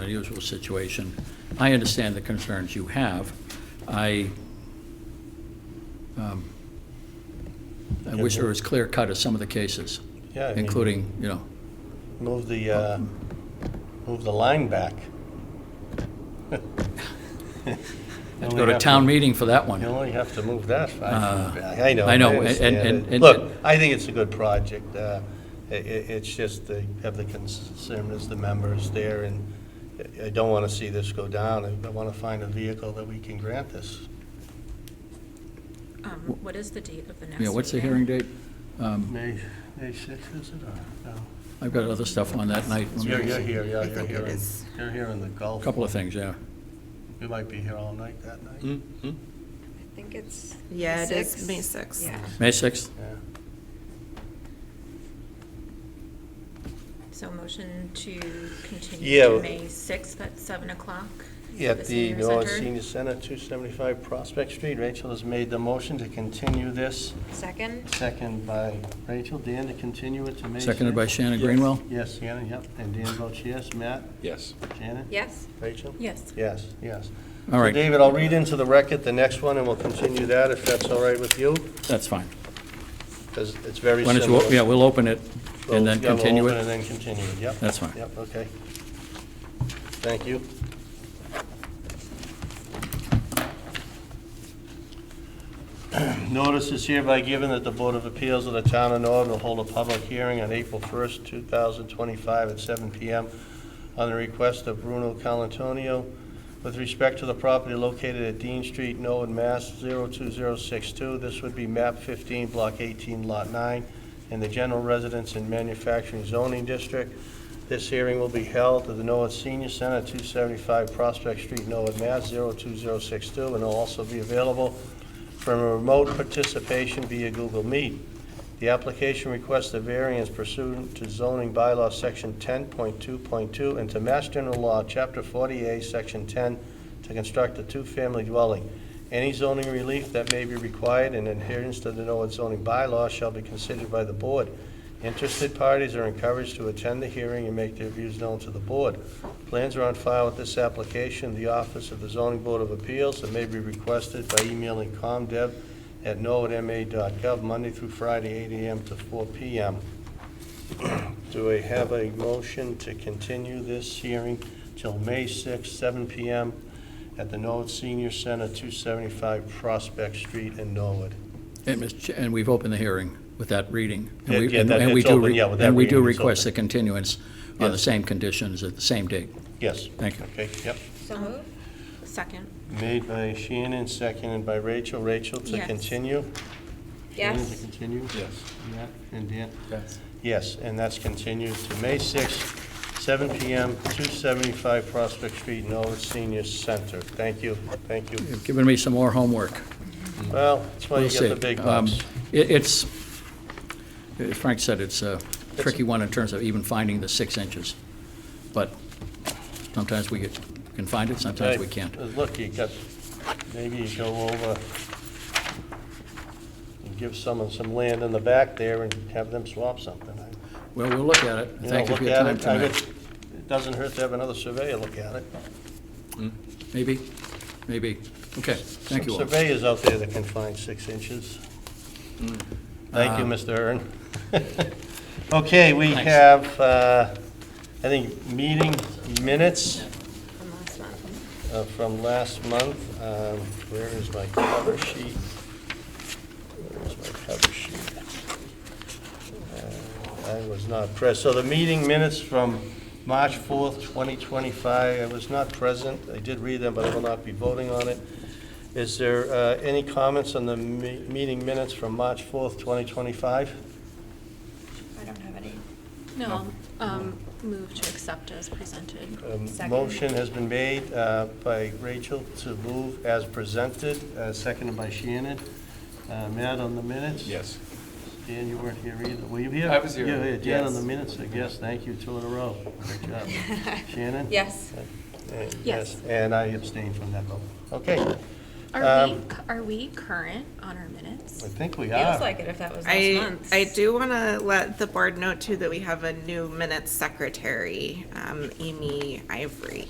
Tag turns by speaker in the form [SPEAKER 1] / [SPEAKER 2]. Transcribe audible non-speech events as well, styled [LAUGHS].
[SPEAKER 1] unusual situation. I understand the concerns you have. I, um, I wish there was clear cut of some of the cases,
[SPEAKER 2] Yeah, I mean,
[SPEAKER 1] including, you know,
[SPEAKER 2] Move the, uh, move the
[SPEAKER 1] [LAUGHS]
[SPEAKER 2] line back.
[SPEAKER 1] have to go to town meeting for that
[SPEAKER 2] You
[SPEAKER 1] one.
[SPEAKER 2] only have to move that
[SPEAKER 1] Uh,
[SPEAKER 2] five feet back. I know.
[SPEAKER 1] I know, and-
[SPEAKER 2] understand
[SPEAKER 1] and-
[SPEAKER 2] it.
[SPEAKER 1] and-
[SPEAKER 2] Look, I think it's a good project. Uh, i- i it's just the, have the concern as the members there, and I- I don't want to see this go down. I- I want to find a vehicle that we can grant this.
[SPEAKER 3] Um, What is the date of the next?
[SPEAKER 1] Yeah, what's the hearing date? Um,
[SPEAKER 2] May, May sixth, is it, or, no?
[SPEAKER 1] I've got other stuff on that night.
[SPEAKER 2] You're, you're here, yeah,
[SPEAKER 4] I
[SPEAKER 2] you're
[SPEAKER 4] think it
[SPEAKER 2] here, in-
[SPEAKER 4] is.
[SPEAKER 2] you're here in the Gulf.
[SPEAKER 1] Couple Hmm? of things, yeah.
[SPEAKER 2] You might be here all night that night.
[SPEAKER 5] I think it's.
[SPEAKER 4] Yeah, it is
[SPEAKER 5] six.
[SPEAKER 4] May sixth.
[SPEAKER 5] Yeah.
[SPEAKER 1] May 6th?
[SPEAKER 2] Yeah.
[SPEAKER 3] So motion to continue
[SPEAKER 2] Yeah.
[SPEAKER 3] to May 6th at 7 o'clock?
[SPEAKER 2] At the
[SPEAKER 3] senior
[SPEAKER 2] North
[SPEAKER 3] center?
[SPEAKER 2] Senior Center, 275 Prospect Street. Rachel has made the motion to continue this,
[SPEAKER 5] Second?
[SPEAKER 2] second by Rachel. Dan, to continue it to May 6th.
[SPEAKER 1] Seconded by Shannon Greenwell?
[SPEAKER 2] Yes, Shannon, yep. And Dan votes yes. Matt?
[SPEAKER 6] Yes.
[SPEAKER 2] Shannon?
[SPEAKER 5] Yes?
[SPEAKER 2] Rachel?
[SPEAKER 3] Yes.
[SPEAKER 2] Yes, yes.
[SPEAKER 1] All right.
[SPEAKER 2] So David, I'll read into the record the next one, and we'll continue that, if that's all right with you,
[SPEAKER 1] That's fine.
[SPEAKER 2] because it's very
[SPEAKER 1] Why don't you,
[SPEAKER 2] similar.
[SPEAKER 1] o- yeah, we'll open it
[SPEAKER 2] Well,
[SPEAKER 1] and then
[SPEAKER 2] yeah, we'll
[SPEAKER 1] continue
[SPEAKER 2] open And
[SPEAKER 1] it.
[SPEAKER 2] then continue it, yep.
[SPEAKER 1] That's fine.
[SPEAKER 2] Yep, okay. Thank you. [CLEARS THROAT] Notice is hereby given that the Board of Appeals of the Town of Norton will hold a public hearing on April 1st, 2025, at 7 PM on the request of Bruno Calantonio with respect to the property located at Dean Street, Norwood, Mass. 02062. This would be map 15, block 18, lot 9, in the general residence and manufacturing zoning district. This hearing will be held at the Norwood Senior Center, 275 Prospect Street, Norwood, Mass. 02062, and will also be available from a remote participation via Google Meet. The application requests a variance pursuant to zoning bylaw Section 10.2.2 and to Mass General Law, Chapter 40A, Section 10, to construct a two-family dwelling. Any zoning relief that may be required in adherence to the Norwood zoning bylaw shall be considered by the board. Interested parties are encouraged to attend the hearing and make their views known to the board. Plans are on file with this application, in the Office of the Zoning Board of Appeals, and may be requested by emailing comdev@norwoodma.gov, Monday through Friday, 8 AM to 4 PM. [CLEARS THROAT] Do I have a motion to continue this hearing till May 6, 7 PM at the Norwood Senior Center, 275 Prospect Street in Norwood?
[SPEAKER 1] And Mr. Ch- And we've opened the hearing with that reading. And
[SPEAKER 2] Yeah,
[SPEAKER 1] we-
[SPEAKER 2] yeah,
[SPEAKER 1] and-
[SPEAKER 2] that-
[SPEAKER 1] and we
[SPEAKER 2] it's
[SPEAKER 1] do
[SPEAKER 2] open,
[SPEAKER 1] re-
[SPEAKER 2] yeah, with that
[SPEAKER 1] And we do
[SPEAKER 2] reading, it's
[SPEAKER 1] request
[SPEAKER 2] open.
[SPEAKER 1] the continuance on the
[SPEAKER 2] Yes.
[SPEAKER 1] same conditions at the same date.
[SPEAKER 2] Yes.
[SPEAKER 1] Thank you.
[SPEAKER 2] Okay, yep.
[SPEAKER 5] So move?
[SPEAKER 3] Um, Second,
[SPEAKER 2] Made by Shannon, seconded by Rachel. Rachel, to
[SPEAKER 3] Yes.
[SPEAKER 2] continue? Shannon, to
[SPEAKER 5] Yes?
[SPEAKER 2] continue?
[SPEAKER 6] Yes.
[SPEAKER 2] Matt and Dan?
[SPEAKER 6] Yes.
[SPEAKER 2] Yes, and that's continued to May 6th, 7 PM, 275 Prospect Street, Norwood Senior Center. Thank you, thank you.
[SPEAKER 1] You've given me some more homework.
[SPEAKER 2] Well, that's why
[SPEAKER 1] We'll
[SPEAKER 2] you get
[SPEAKER 1] see.
[SPEAKER 2] the big
[SPEAKER 1] Um,
[SPEAKER 2] bucks.
[SPEAKER 1] it- It's, as Frank said, it's a tricky one in terms of even finding the six inches. But sometimes we get- can find it, sometimes
[SPEAKER 2] Hey,
[SPEAKER 1] we can't.
[SPEAKER 2] Look, you got, maybe you go over and give someone some land in the back there and have them swap something.
[SPEAKER 1] Well, we'll look at it.
[SPEAKER 2] know,
[SPEAKER 1] Thank you for
[SPEAKER 2] look
[SPEAKER 1] your
[SPEAKER 2] at
[SPEAKER 1] time
[SPEAKER 2] it. I
[SPEAKER 1] tonight.
[SPEAKER 2] would- It doesn't hurt to have another surveyor look at it.
[SPEAKER 1] Maybe, maybe. Okay, thank you all.
[SPEAKER 2] Some surveyors out there that can find six inches. Thank you, Mr. Earn. [LAUGHS] Okay, we
[SPEAKER 1] Uh, Thanks.
[SPEAKER 2] have, uh, I think, meeting minutes
[SPEAKER 5] From last month.
[SPEAKER 2] uh, from last month. Um, Where is my cover sheet? Where is my cover sheet? Uh, I was not present. So the meeting minutes from March 4th, 2025, I was not present. I did read them, but I will not be voting on it. Is there uh, any comments on the me- meeting minutes from March 4th, 2025?
[SPEAKER 5] I don't have any.
[SPEAKER 3] no, um, move to accept as presented.
[SPEAKER 2] Um,
[SPEAKER 5] Second.
[SPEAKER 2] Motion has been made uh, by Rachel to move as presented, uh, seconded by Shannon. Uh, Matt on the minutes?
[SPEAKER 6] Yes.
[SPEAKER 2] Dan, you weren't here either. Were you here?
[SPEAKER 6] I was here,
[SPEAKER 2] You were Dan on the
[SPEAKER 6] yes.
[SPEAKER 2] minutes, I guess. Thank you, two in a row. Great
[SPEAKER 5] [LAUGHS]
[SPEAKER 2] job. Shannon?
[SPEAKER 5] Yes.
[SPEAKER 2] Uh,
[SPEAKER 3] Yes.
[SPEAKER 2] And I abstain from that vote. Okay, I
[SPEAKER 3] Are we, are we current on our minutes?
[SPEAKER 2] think we
[SPEAKER 5] Feels
[SPEAKER 2] are.
[SPEAKER 5] like it if that was last
[SPEAKER 4] I,
[SPEAKER 5] month.
[SPEAKER 4] I do want to let the board know too that we have a new minutes secretary, um, Amy Ivory.